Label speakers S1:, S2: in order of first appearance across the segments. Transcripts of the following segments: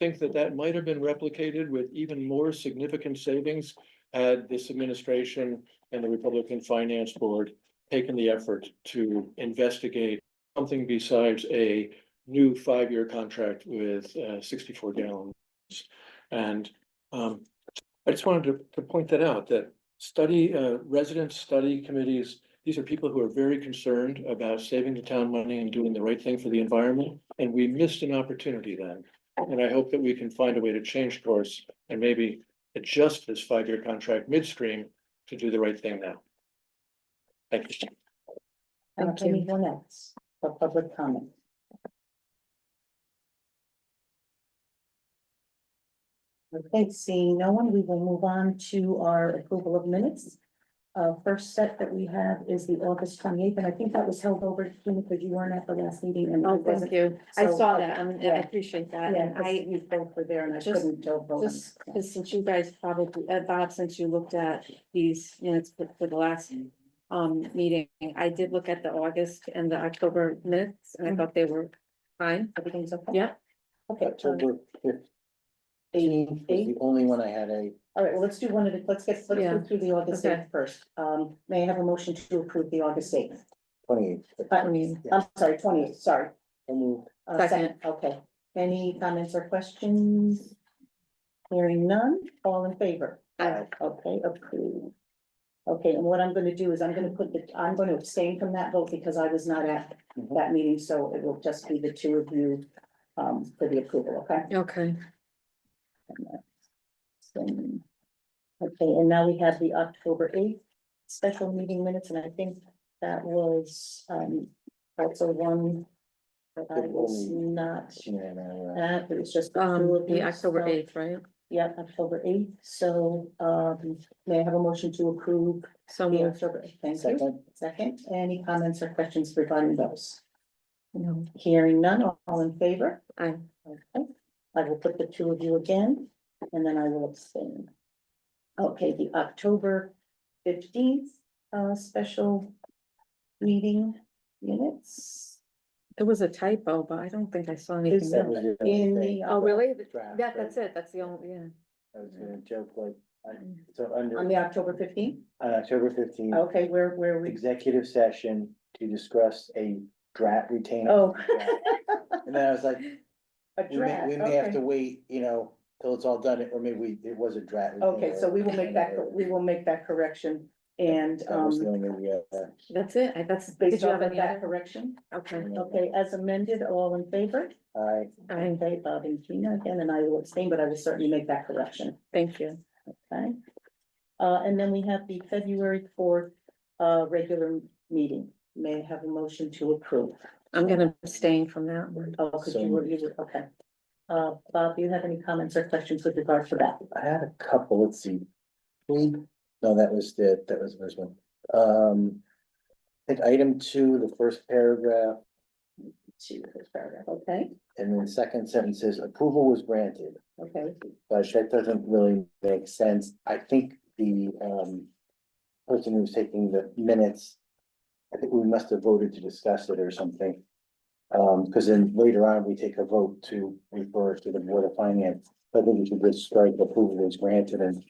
S1: think that that might have been replicated with even more significant savings had this administration and the Republican Finance Board taken the effort to investigate something besides a new five-year contract with uh, sixty-four gallons. And um, I just wanted to, to point that out, that study, uh, resident study committees, these are people who are very concerned about saving the town money and doing the right thing for the environment, and we missed an opportunity then. And I hope that we can find a way to change course and maybe adjust this five-year contract midstream to do the right thing now. Thank you.
S2: Thank you.
S3: Anyone else for public comment? Okay, seeing no one, we will move on to our approval of minutes. Uh, first set that we have is the August twenty eighth, and I think that was held over, Tina, because you weren't at the last meeting and.
S2: Oh, thank you. I
S3: So,
S2: saw that. and I
S3: yeah.
S2: appreciate that.
S3: Yeah,
S2: And
S3: I,
S2: I,
S3: you both were there and I
S2: Just-
S3: couldn't go vote.
S2: just, 'cause since you guys probably, uh, Bob, since you looked at these minutes for, for the last um, meeting, I did look at the August and the October minutes
S3: Mm-hmm.
S2: and I thought they were fine.
S3: Everything's okay?
S2: Yeah.
S3: Okay. so
S4: October fifteenth
S3: Eight,
S4: was
S3: eight.
S4: the only one I had a,
S3: All right, well, let's do one of the, let's get, let's
S2: Yeah.
S3: go through the August
S2: Okay.
S3: eighth first. Um, may I have a motion to approve the August eighth?
S4: twenty-eighth.
S3: I'm sorry, twenty eighth, sorry. Uh,
S2: Second.
S3: Okay, any comments or questions? Hearing none, all in favor?
S2: Aye.
S3: Okay, approved. Okay, and what I'm gonna do is I'm gonna put the, I'm gonna abstain from that vote because I was not at
S2: Mm-hmm.
S4: Mhm.
S3: that meeting, so it will just be the two of you um, for the approval, okay?
S2: Okay.
S3: Um, Okay, and now we have the October eighth special meeting minutes, and I think that was, um, also one that I was not at, it was just. the two
S2: Um,
S3: of
S2: the
S3: you,
S2: October
S3: so-
S2: eighth, right?
S3: Yep, October eighth, so, um, may I have a motion to approve
S2: So
S3: the
S2: moved.
S3: October, 8th? thank you.
S4: Second,
S3: Second, any comments or questions regarding those? Hearing none, all in favor?
S2: Aye.
S3: Okay, I will put the two of you again, and then I will abstain. Okay, the October fifteenth, uh, special meeting minutes
S2: There was a typo, but I don't think I saw
S3: Is
S2: anything.
S3: there-
S4: that
S2: else.
S4: was your
S3: in
S4: thing.
S3: the.
S2: Oh, really?
S4: Draft,
S2: That, that's
S4: right?
S2: it. That's the only, yeah.
S4: I was gonna joke like, I, so under,
S3: On
S4: on
S3: the Oh. October fifteenth,
S4: October fifteenth,
S3: okay, where, where we,
S4: executive session to discuss a draft retainer.
S3: oh.
S4: And then I was like,
S3: A
S4: we may,
S3: draft,
S4: we may have to
S3: okay,
S4: wait, you know, till it's all done, or maybe we, it was a draft.
S3: okay,
S4: retainer.
S3: so we will make that, we will make that correction, and,
S4: That was the
S3: um,
S4: only, uh,
S2: That's it. I, that's, did
S3: based
S2: you
S3: off
S2: have
S3: of
S2: any
S3: that
S2: other?
S3: correction.
S2: Okay.
S3: Okay, as amended, all in favor?
S4: uh, I,
S2: I,
S3: Okay, Bob and Gina again, and I will abstain, but I will certainly make that correction,
S2: thank you.
S3: okay? Uh, and then we have the February fourth, uh, regular meeting. May I have a motion to approve?
S2: I'm gonna abstain from that one.
S3: Oh, could
S4: So
S3: you
S4: moved.
S3: review it? Okay. Uh, Bob, do you have any comments or questions with regard to that?
S4: I had a couple, let's see. We, no, that was the, that was the first one. Um. I think item two, the first paragraph,
S3: To this paragraph, okay,
S4: and then the second sentence says approval was granted,
S3: okay,
S4: but that doesn't really make sense. I think the um. Person who's taking the minutes. I think we must have voted to discuss it or something. Um, because then later on, we take a vote to refer to the Board of Finance. I think we should just strike approval was granted and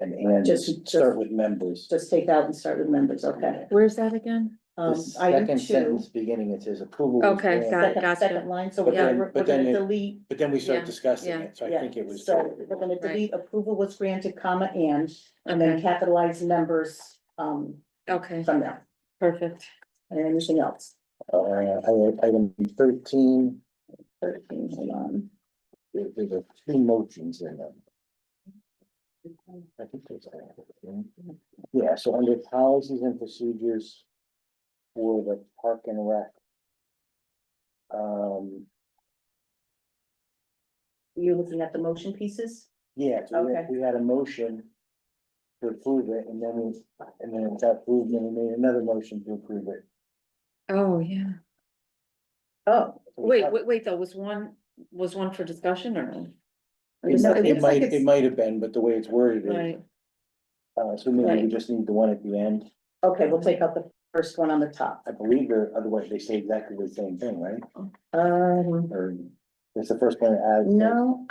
S4: and
S3: Just-
S4: and start with members.
S3: just take out and start with members, okay?
S2: Where's that again?
S4: The
S3: Um, item
S4: second
S3: two,
S4: sentence beginning, it says approval. was
S2: Okay,
S4: granted,
S2: got it,
S3: second,
S2: gotcha.
S3: second line, so
S4: But
S3: we're gonna,
S4: then-
S3: we're
S4: but
S3: gonna
S4: then it-
S3: delete
S4: But then we
S2: Yeah,
S4: start discussing
S2: yeah.
S4: it, so I
S3: Yeah,
S4: think it was.
S3: So we're gonna
S2: Right.
S3: delete approval was granted, comma, and, and then
S2: Okay,
S3: capitalize members, um,
S2: okay,
S3: from there,
S2: perfect.
S3: and anything else.
S4: Uh, item thirteen,
S3: Thirteen, hold on.
S4: there there were two motions in them. I think there's. Yeah, so under policies and procedures for the park and rec. Um,
S3: You're looking at the motion pieces?
S4: yeah, so we had-
S3: Okay.
S4: we had a motion to approve it, and then we, and then it got approved, and we made another motion to approve it.
S2: Oh, yeah.
S3: Oh.
S4: So we
S2: Wait,
S4: have-
S2: wait, wait, though, was one, was one for discussion or? no?
S4: It
S3: No,
S4: might- It
S3: looks like
S4: might, it
S3: it's-
S4: might have been, but the way it's worded, is,
S2: Right,
S4: uh, so maybe
S2: Right.
S4: we just need the one at the end.
S3: Okay, we'll take out the first one on the top.
S4: I believe, or otherwise they say exactly the same thing, right?
S3: Um,
S4: Or it's the first one that adds.
S3: no,